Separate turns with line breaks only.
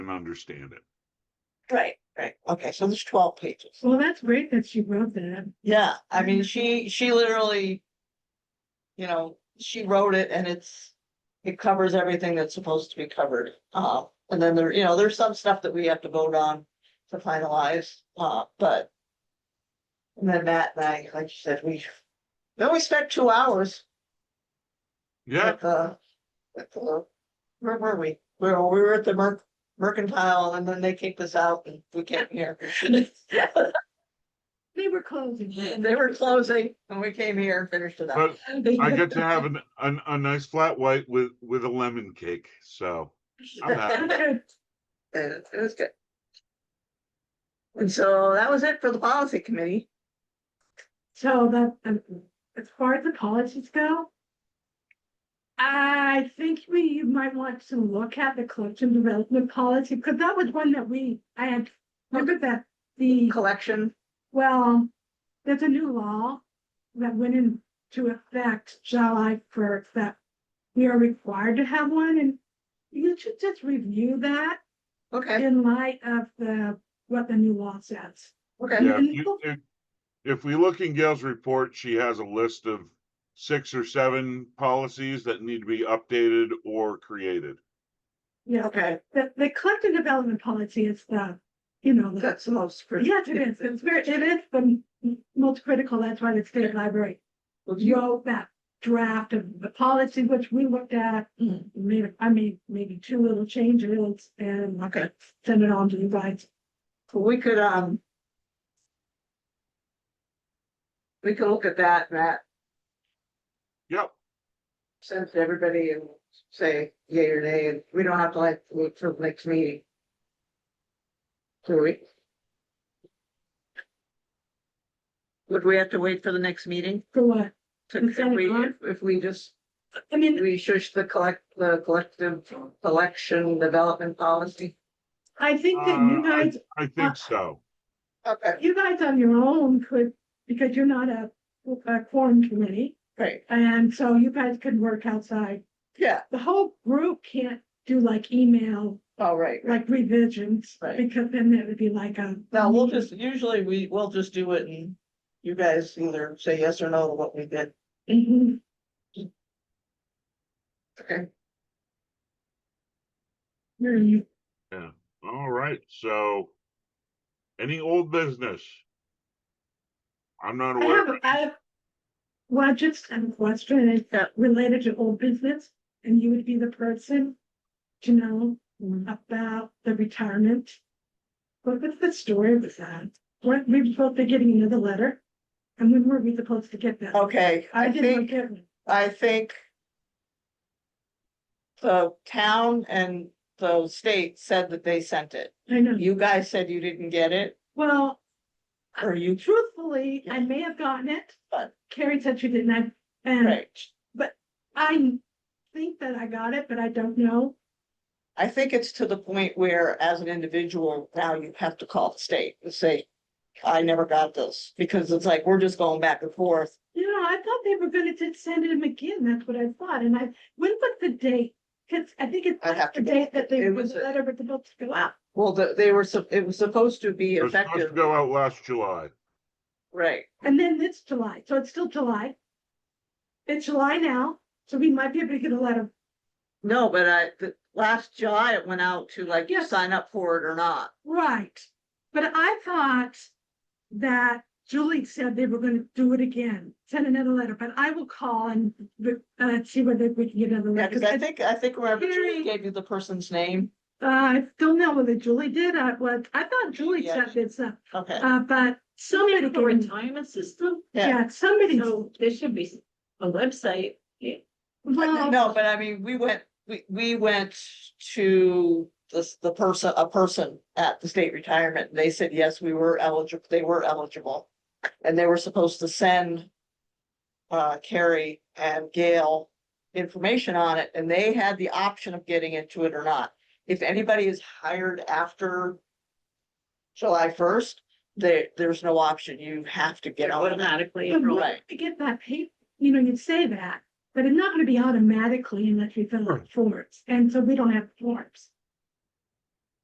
and understand it.
Right, right. Okay, so there's twelve pages.
Well, that's great that she wrote that.
Yeah, I mean, she, she literally. You know, she wrote it and it's, it covers everything that's supposed to be covered. Uh, and then there, you know, there's some stuff that we have to vote on to finalize, uh, but. And then Matt and I, like you said, we, we only spent two hours
Yeah,
at the. At the, where were we? We were, we were at the merc- mercantile and then they kicked us out and we came here.
They were closing.
And They were closing and we came here and finished it up.
but I get to have an, an, a nice flat white with, with a lemon cake, so. I'm happy.
And it was good. And so that was it for the policy committee.
So that, um, as far as the policies go. I think we might want to look at the collection development policy, because that was one that we, I had, remember that the,
Collection,
well, there's a new law. That went into effect July first, that we are required to have one, and you should just review that.
okay,
in light of the, what the new law says.
okay,
Yeah, if you- if- If we look in Gail's report, she has a list of six or seven policies that need to be updated or created.
Yeah,
okay,
the, the collective development policy is the, you know, the,
that's the most. pretty-
yes, it is, it's very, it is the m- most critical, that's why the state library wrote that draft of the policy, which we looked at,
Mm,
made, I made maybe two little changes and
Okay,
send it on to you guys.
Well, we could, um. We can look at that, Matt,
Yep,
send it to everybody and say yay or nay, and we don't have to like wait till the next meeting. Do we? Would we have to wait for the next meeting?
For what?
So
Instead
If
of
we,
gone?
if we just,
I mean,
we shush the collect, the collective collection development policy.
I think that you
Uh,
guys,
I think so.
Okay,
you guys on your own could, because you're not a, a quorum committee.
great.
And so you guys can work outside.
Yeah,
The whole group can't do like email,
all right.
like revisions,
Right.
because then it would be like a.
Now, we'll just, usually we, we'll just do it and you guys either say yes or no to what we did.
Mhm.
Okay.
Mhm.
All right, so. Any old business? I'm not
I have,
aware.
I have. Well, I just have a question, it's uh,
Yeah.
related to old business, and you would be the person to know about the retirement. What was the story with that? Weren't we supposed to be getting another letter? And when were we supposed to get that?
Okay,
I
Oh, I
didn't
think,
get one.
I think. The town and the state said that they sent it.
I know.
You guys said you didn't get it,
Well,
or you
truthfully, I may have gotten it, but Carrie said she didn't, I- and
Right,
I think that I got it, but I don't know.
I think it's to the point where as an individual, now you have to call the state and say, I never got this, because it's like, we're just going back and forth.
You know, I thought they were gonna just send him again, that's what I thought, and I, when was the date? Cause I think it's
I'd have
the
to go-
date that they,
it
when
was
the
a-
letter was supposed to go out.
Well, the- they were, sup- it was supposed to be
It was supposed to
effective,
go out last July.
right?
And then it's July, so it's still July. It's July now, so we might be able to get a letter.
No, but I, the, last July, it went out to like, you
Yes.
sign up for it or not.
Right, but I thought that Julie said they were gonna do it again, send another letter, but I will call and uh see whether we can get another
Yeah,
letter.
cause I think, I think remember
Very-
Julie gave you the person's name,
Uh, I don't know whether Julie did, I was, I thought Julie
Yeah.
said this, uh,
okay,
uh, but somebody.
Somebody for
gave-
retirement system,
yeah.
Yeah, somebody,
so there should be a website. Yeah.
well,
No, but I mean, we went, we, we went to the, the person, a person at the state retirement, and they said, yes, we were eligible, they were eligible. And they were supposed to send uh, Carrie and Gail information on it, and they had the option of getting into it or not. If anybody is hired after July first, there, there's no option. You have to get on it.
Automatically.
but
enrolled.
when
right.
we get that paper, you know, you'd say that, but it's not gonna be automatically unless we fill out
Right.
forms, and so we don't have forms.